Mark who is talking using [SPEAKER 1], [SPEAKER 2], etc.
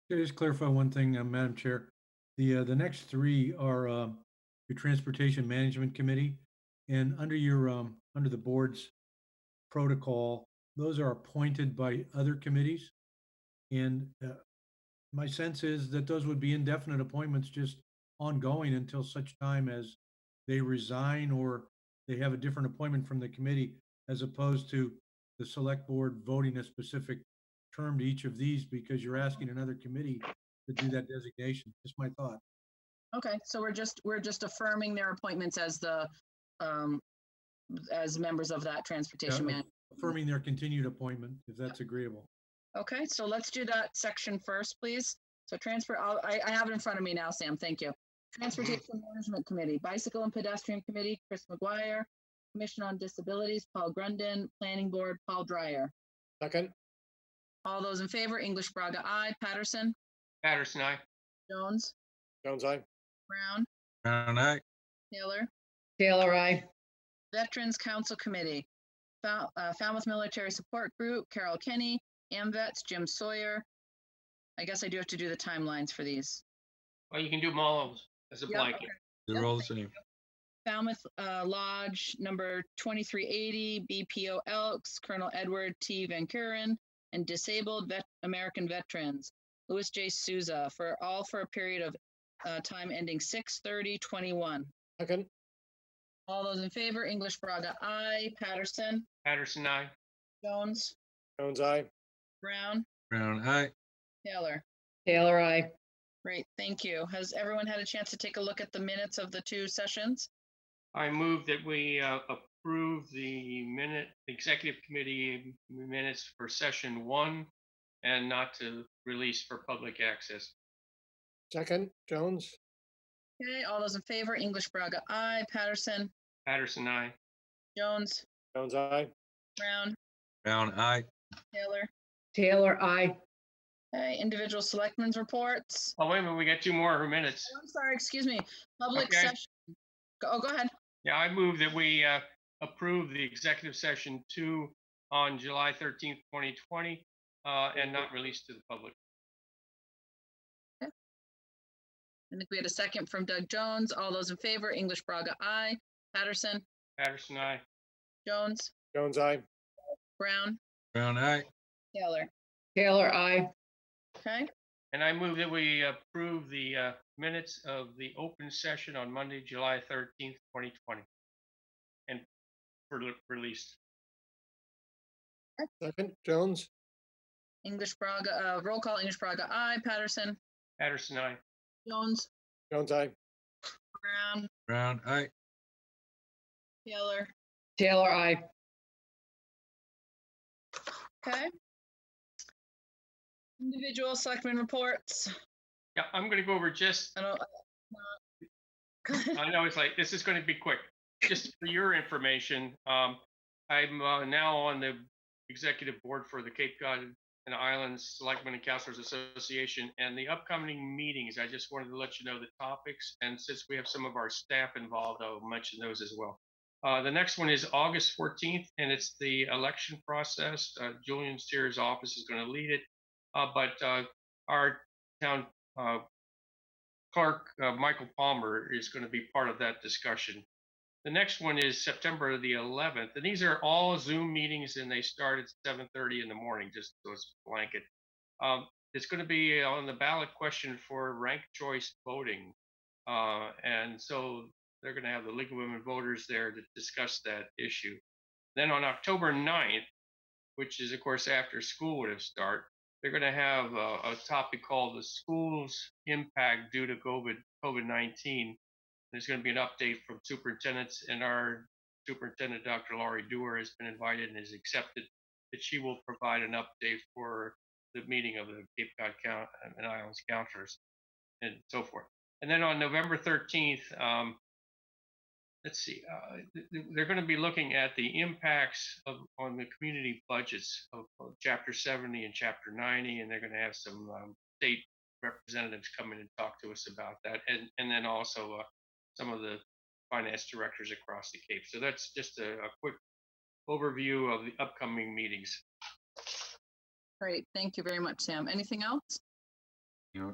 [SPEAKER 1] Can I just clarify one thing, uh, Madam Chair? The, uh, the next three are uh, your Transportation Management Committee. And under your, um, under the board's protocol, those are appointed by other committees. And uh, my sense is that those would be indefinite appointments, just ongoing until such time as they resign or they have a different appointment from the committee, as opposed to the select board voting a specific term to each of these because you're asking another committee to do that designation. Just my thought.
[SPEAKER 2] Okay, so we're just, we're just affirming their appointments as the, um, as members of that transportation
[SPEAKER 1] Yeah.
[SPEAKER 2] man.
[SPEAKER 1] Affirming their continued appointment, if that's agreeable.
[SPEAKER 2] Okay, so let's do that section first, please. So transfer, I'll- I, I have it in front of me now, Sam, thank you. Transportation Management Committee, Bicycle and Pedestrian Committee, Chris McGuire, Commission on Disabilities, Paul Grundin, Planning Board, Paul Dreyer.
[SPEAKER 3] Second,
[SPEAKER 2] All those in favor, English Braga, I. Patterson,
[SPEAKER 4] Patterson, aye.
[SPEAKER 2] Jones,
[SPEAKER 3] Jones, aye.
[SPEAKER 2] Brown,
[SPEAKER 5] Brown aye.
[SPEAKER 2] Taylor.
[SPEAKER 6] Taylor, I.
[SPEAKER 2] Veterans Council Committee, Fal- uh, Falmouth Military Support Group, Carol Kenny, AMVets, Jim Sawyer. I guess I do have to do the timelines for these.
[SPEAKER 4] Well, you can do them all as a
[SPEAKER 2] Yeah,
[SPEAKER 4] blanket.
[SPEAKER 5] They're all the same.
[SPEAKER 2] Falmouth uh, Lodge, number 2380, BPO Elks, Colonel Edward T. Van Kuren, and Disabled Vet- American Veterans, Louis J. Souza, for all for a period of uh, time ending 6/30/21.
[SPEAKER 3] Second,
[SPEAKER 2] All those in favor, English Braga, I. Patterson,
[SPEAKER 4] Patterson, aye.
[SPEAKER 2] Jones,
[SPEAKER 3] Jones, aye.
[SPEAKER 2] Brown,
[SPEAKER 5] Brown aye.
[SPEAKER 2] Taylor.
[SPEAKER 6] Taylor, I.
[SPEAKER 2] Great, thank you. Has everyone had a chance to take a look at the minutes of the two sessions?
[SPEAKER 4] I move that we uh, approve the minute, executive committee minutes for session one and not to release for public access.
[SPEAKER 3] Second, Jones,
[SPEAKER 2] Okay, all those in favor, English Braga, aye. Patterson,
[SPEAKER 4] Patterson, aye.
[SPEAKER 2] Jones,
[SPEAKER 3] Jones, aye.
[SPEAKER 2] Brown,
[SPEAKER 5] Brown aye.
[SPEAKER 2] Taylor.
[SPEAKER 6] Taylor, I.
[SPEAKER 2] Okay, individual selectmen's reports.
[SPEAKER 4] Oh, wait a minute, we got two more minutes.
[SPEAKER 2] Oh, I'm sorry, excuse me, public
[SPEAKER 4] Okay.
[SPEAKER 2] session. Go- Oh, go ahead.
[SPEAKER 4] Yeah, I move that we uh, approve the executive session two on July thirteenth, twenty twenty, uh, and not release to the public.
[SPEAKER 2] I think we had a second from Doug Jones. All those in favor, English Braga, aye. Patterson,
[SPEAKER 4] Patterson, aye.
[SPEAKER 2] Jones,
[SPEAKER 3] Jones, aye.
[SPEAKER 2] Brown,
[SPEAKER 5] Brown aye.
[SPEAKER 2] Taylor.
[SPEAKER 6] Taylor, I.
[SPEAKER 2] Okay,
[SPEAKER 4] And I move that we approve the uh, minutes of the open session on Monday, July thirteenth, twenty twenty. And for re- release.
[SPEAKER 3] Second, Jones,
[SPEAKER 2] English Braga, uh, roll call, English Braga, aye. Patterson,
[SPEAKER 4] Patterson, aye.
[SPEAKER 2] Jones,
[SPEAKER 3] Jones, aye.
[SPEAKER 2] Brown,
[SPEAKER 5] Brown aye.
[SPEAKER 2] Taylor.
[SPEAKER 6] Taylor, I.
[SPEAKER 2] Okay. Individual selectmen reports.
[SPEAKER 4] Yeah, I'm gonna go over just,
[SPEAKER 2] I don't. uh,
[SPEAKER 4] I know it's like, this is gonna be quick. Just for your information, um, I'm uh, now on the executive board for the Cape Cod and Islands Selectmen and Counselors Association. And the upcoming meetings, I just wanted to let you know the topics. And since we have some of our staff involved, I'll mention those as well. Uh, the next one is August 14th, and it's the election process. Uh, Julian Steer's office is going to lead it. Uh, but uh, our town uh, clerk, uh, Michael Palmer, is going to be part of that discussion. The next one is September the 11th, and these are all Zoom meetings, and they start at 7:30 in the morning. Just those blanket. Um, it's going to be on the ballot question for rank choice voting, uh, and so they're going to have the League of Women Voters there to discuss that issue. Then on October 9th, which is of course after school would have start, they're going to have a, a topic called the school's impact due to COVID COVID 19. There's going to be an update from superintendents, and our superintendent, Dr. Laurie Dewar, has been invited and has accepted that she will provide an update for the meeting of the Cape Cod Coun- and Islands Councilors and so forth. And then on November 13th, um, let's see, uh, th- th- they're going to be looking at the impacts of on the community budgets of, of Chapter 70 and Chapter 90, and they're going to have some um, state representatives come in and talk to us about that, and and then also uh, some of the finance directors across the Cape. So that's just a, a quick overview of the upcoming meetings.
[SPEAKER 2] Great, thank you very much, Sam. Anything else?